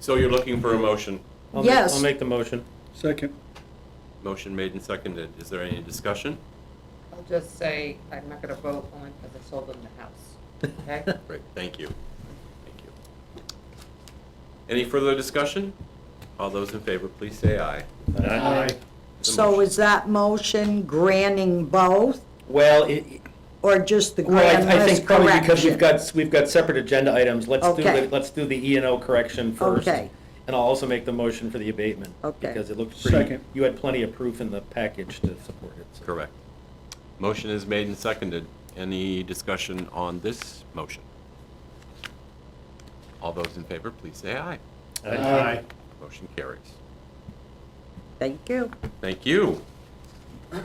So you're looking for a motion? I'll make- Yes. I'll make the motion. Second. Motion made and seconded. Is there any discussion? I'll just say, I'm not gonna vote only because I sold them the house, okay? Great, thank you. Thank you. Any further discussion? All those in favor, please say aye. Aye. The So motion- is that motion granting both Well, it, or just the well, grand I- I list think probably because we've correction? got, we've got separate agenda items. Let's do, Okay. the- let's do the E and O correction first. Okay. And I'll also make the motion for the abatement. Okay. Because it looked pretty, Second. you had plenty of proof in the package to support it. so. Correct. Motion is made and seconded. Any discussion on this motion? All those in favor, please say aye. Aye. Motion carries. Thank you. Thank you.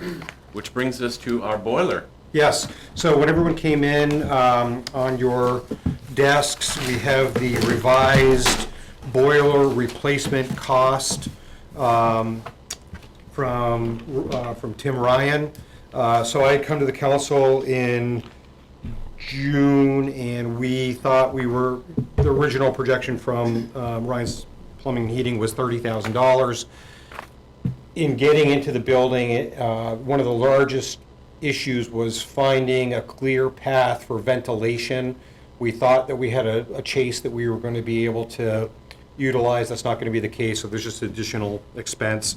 Which brings us to our boiler. Yes, so when everyone came in, um, on your desks, we have the revised boiler replacement cost um, from, uh, from Tim Ryan. Uh, So I had come to the council in June, and we thought we were, the original projection from um, Ryan's Plumbing and Heating was $30,000 in getting into the building, uh, one of the largest issues was finding a clear path for ventilation. We thought that we had a a chase that we were going to be able to utilize. That's not going to be the case, so there's just additional expense.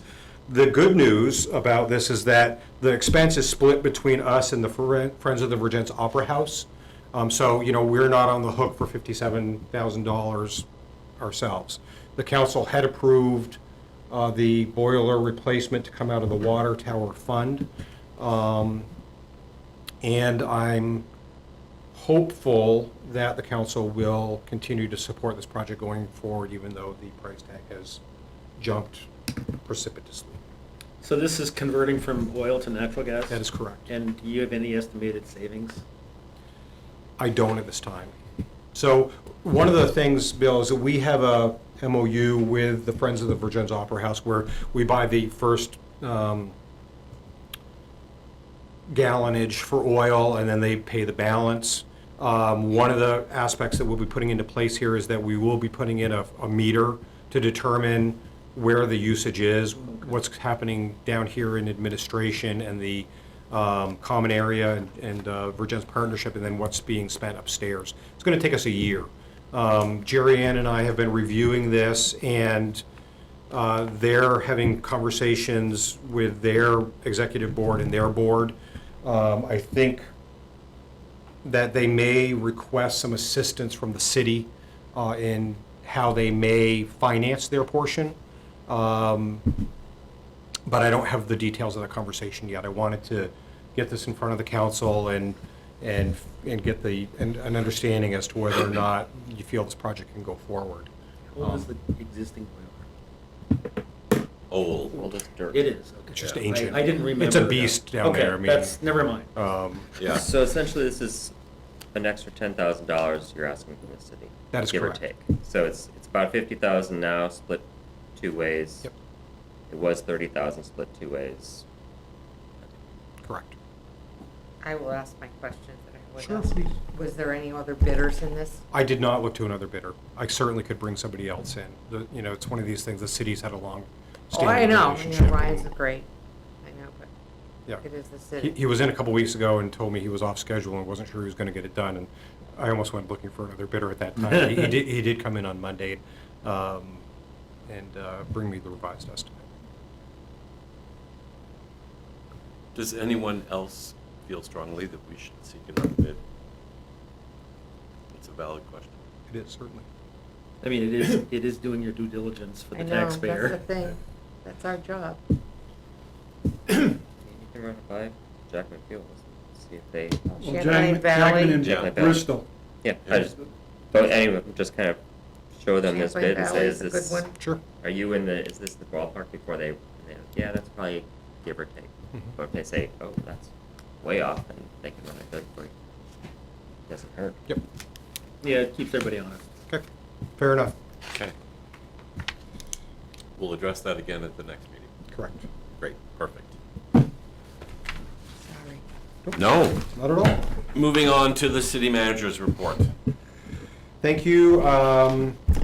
The good news about this is that the expense is split between us and the Fren- Friends of the Virgins Opera House. Um, So, you know, we're not on the hook for $57,000 ourselves. The council had approved uh, the boiler replacement to come out of the water tower fund. Um, And I'm hopeful that the council will continue to support this project going forward, even though the price tag has jumped precipitously. So this is converting from oil to natural gas? That is correct. And do you have any estimated savings? I don't at this time. So one of the things, Bill, is that we have a MOU with the Friends of the Virgins Opera House where we buy the first um, gallonage for oil and then they pay the balance. Um, One of the aspects that we'll be putting into place here is that we will be putting in a, a meter to determine where the usage is, what's happening down here in administration and the um, common area and- and uh, Virgin's partnership, and then what's being spent upstairs. It's going to take us a year. Um, Jerry Ann and I have been reviewing this, and uh, they're having conversations with their executive board and their board. Um, I think that they may request some assistance from the city uh, in how they may finance their portion. Um, But I don't have the details of the conversation yet. I wanted to get this in front of the council and, and, and get the, and an understanding as to whether or not you feel this project can go forward. How old is Um. the existing boiler? Old. It is, okay. It's just Yeah, I- ancient. I didn't remember. It's a that. beast down there. I Okay, mean, that's, never mind. um, Yeah. So essentially, this is an extra ten thousand dollars you're asking from the city. That is give correct. or take. So it's it's about fifty thousand now, split two ways. Yep. It was thirty thousand, split two ways. Correct. I will ask my questions that I would Sure, ask. please. Was there any other bidders in this? I did not look to another bidder. I certainly could bring somebody else in. The- You know, it's one of these things, the city's had a long Oh, I standing know, relationship. you know, Ryan's great, I know, but Yeah. it is the He, city. he was in a couple weeks ago and told me he was off schedule and wasn't sure he was gonna get it done, and I almost went looking for another bidder at that time. He he did, he did come in on Monday, um, and, uh, bring me the revised estimate. Does anyone else feel strongly that we should seek another bid? It's a valid question. It is certainly. I mean, it is, it is doing your due diligence for the I know, that's taxpayer. the thing, that's our job. You can run it by Jack McFeel, see if they. Well, Champlain Jackman- Valley. Jackman Jackman and Valley. Bristol. Yeah, I just. But anyway, just kind of show them this Champlain bid and Valley say, is a good this? one. Sure. Are you in the? Is this the ballpark before they? And they're like, yeah, that's probably give or take. Mm-hmm. But if they say, oh, that's way off, then they can run it good for you. Doesn't hurt. Yep. Yeah, it keeps everybody honest. Okay. Fair enough. Okay. We'll address that again at the next meeting. Correct. Great, perfect. Sorry. No. Not at all. Moving on to the city manager's report. Thank you. Um,